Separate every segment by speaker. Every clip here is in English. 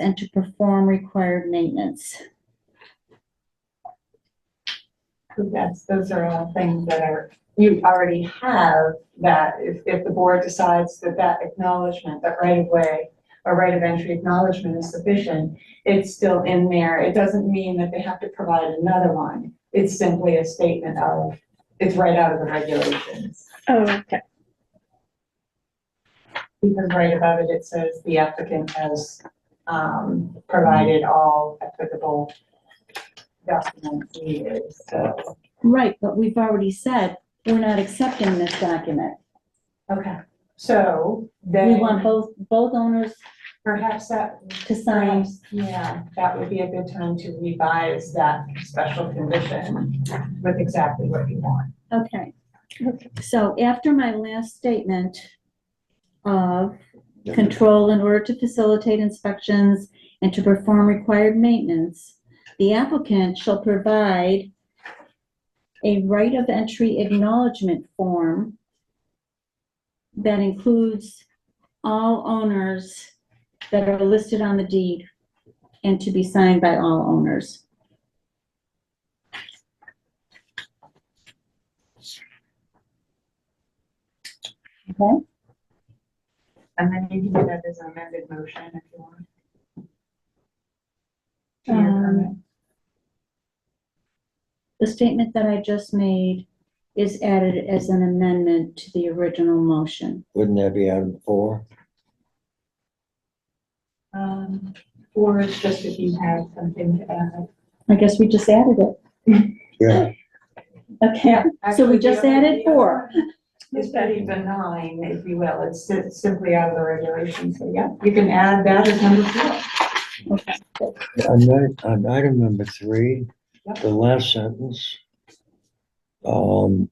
Speaker 1: and to perform required maintenance.
Speaker 2: Yes, those are all things that are, you already have that if, if the board decides that that acknowledgement, that right of way or right of entry acknowledgement is sufficient, it's still in there. It doesn't mean that they have to provide another one. It's simply a statement of, it's right out of the regulations.
Speaker 3: Oh, okay.
Speaker 2: Because right above it, it says the applicant has, um, provided all applicable documents needed, so,
Speaker 1: Right, but we've already said, we're not accepting this document.
Speaker 2: okay. So
Speaker 1: We
Speaker 2: then.
Speaker 1: want both, both owners
Speaker 2: Perhaps that,
Speaker 1: to sign.
Speaker 2: yeah, that would be a good time to revise that special condition with exactly what you want.
Speaker 1: Okay. So after my last statement of control in order to facilitate inspections and to perform required maintenance, the applicant shall provide a right of entry acknowledgement form that includes all owners that are listed on the deed and to be signed by all owners. Okay?
Speaker 2: And then you can do that as an amended motion if you want. To your permit.
Speaker 1: Um, The statement that I just made is added as an amendment to the original motion.
Speaker 4: Wouldn't that be item four?
Speaker 2: Um, Or it's just if you have something to add.
Speaker 1: I guess we just added it.
Speaker 4: Yeah.
Speaker 1: Okay, So we just
Speaker 2: Actually, the
Speaker 1: added four.
Speaker 2: It's pretty benign, if you will. It's si- simply out of the regulations. So yeah, you can add that as number four.
Speaker 4: On that- on item number three,
Speaker 2: Yep.
Speaker 4: the last sentence. Um.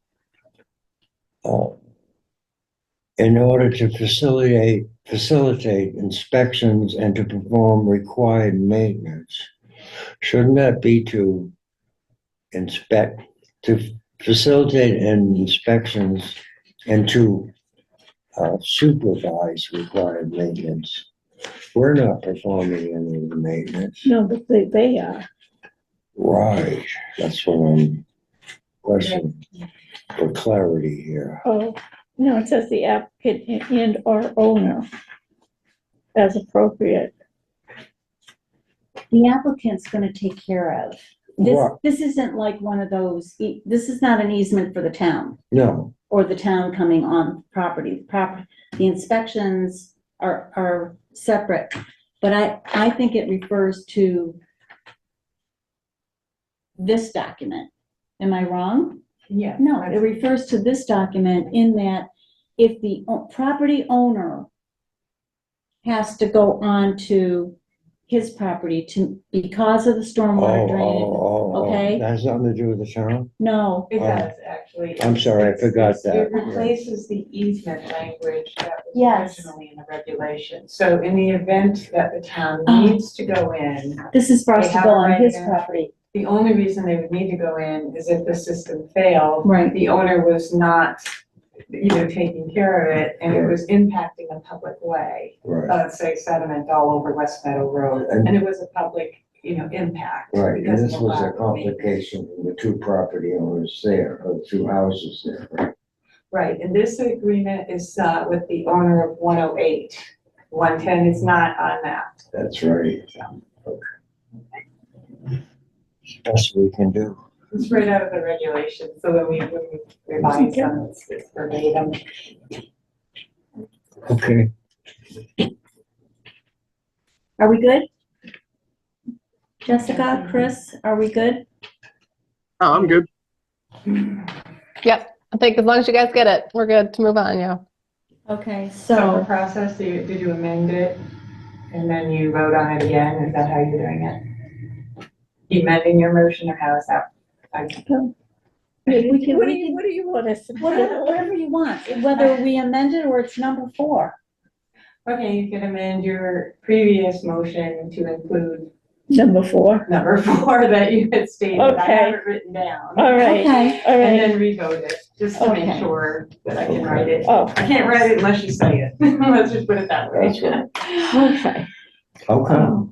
Speaker 4: uh, In order to facilitate, facilitate inspections and to perform required maintenance. Shouldn't that be to inspect, to facilitate and inspections and to uh, supervise required maintenance? We're not performing any of the maintenance.
Speaker 3: No, but they, they are.
Speaker 4: Right, that's what I'm questioning for clarity here.
Speaker 3: Oh, no, it says the applicant and/or owner as appropriate.
Speaker 1: The applicant's gonna take care of. This,
Speaker 4: Right.
Speaker 1: this isn't like one of those, e- this is not an easement for the town
Speaker 4: No,
Speaker 1: or the town coming on property. Prop, the inspections are, are separate. But I, I think it refers to this document. Am I wrong?
Speaker 2: Yeah.
Speaker 1: No, it refers to this document in that if the o- property owner has to go on to his property to, because of the
Speaker 4: oh,
Speaker 1: stormwater
Speaker 4: oh,
Speaker 1: drain,
Speaker 4: oh, oh,
Speaker 1: okay.
Speaker 4: that has nothing to do with the town?
Speaker 1: no,
Speaker 2: It
Speaker 4: Oh.
Speaker 2: does, actually.
Speaker 4: I'm sorry, I forgot
Speaker 2: It
Speaker 4: that.
Speaker 2: replaces the easement language that was
Speaker 1: Yes.
Speaker 2: originally in the regulation. So in the event that the town
Speaker 1: Oh.
Speaker 2: needs to go in,
Speaker 1: this is for us
Speaker 2: They
Speaker 1: to
Speaker 2: have
Speaker 1: go
Speaker 2: a
Speaker 1: on
Speaker 2: right
Speaker 1: his
Speaker 2: there.
Speaker 1: property.
Speaker 2: the only reason they would need to go in is if the system failed.
Speaker 1: Right.
Speaker 2: The owner was not, you know, taking care of it and it was impacting a public way.
Speaker 4: Right,
Speaker 2: Let's say sediment all over West Meadow Road
Speaker 4: And-
Speaker 2: and it was a public, you know, impact.
Speaker 4: right, and
Speaker 2: because of
Speaker 4: this
Speaker 2: the
Speaker 4: was
Speaker 2: lack
Speaker 4: a
Speaker 2: of maintenance.
Speaker 4: complication from the two property owners there, or two houses there, right?
Speaker 2: Right, and this agreement is uh, with the owner of 108. 110 is not on that.
Speaker 4: That's right.
Speaker 2: so.
Speaker 4: Best we can do.
Speaker 2: It's right out of the regulation, so when we when we revise them, it's it's verbatim.
Speaker 4: Okay,
Speaker 1: Are we good? Jessica, Chris, are we good?
Speaker 5: Oh, I'm good.
Speaker 6: I think as long as you guys get it, we're good to move on, yeah.
Speaker 1: Okay,
Speaker 2: So the
Speaker 1: so,
Speaker 2: process, do you- did you amend it? And then you vote on it again? Is that how you're doing it? You amending your motion or how is that? I-
Speaker 1: we can,
Speaker 3: What do
Speaker 1: we
Speaker 3: you,
Speaker 1: can,
Speaker 3: what do you want us to
Speaker 1: whatever, whatever you want, whether we amend it or it's number four.
Speaker 2: Okay, you can amend your previous motion to include
Speaker 3: Number four.
Speaker 2: number four that you had stated. I
Speaker 3: Okay.
Speaker 2: have it written down.
Speaker 3: All right,
Speaker 1: Okay,
Speaker 3: all
Speaker 2: And
Speaker 3: right.
Speaker 2: then revote it, just to make
Speaker 1: Okay.
Speaker 2: sure that I can write it.
Speaker 3: Oh,
Speaker 2: I can't write it unless you say it. Let's just put it that way.
Speaker 4: That's right.
Speaker 3: okay.
Speaker 4: how come?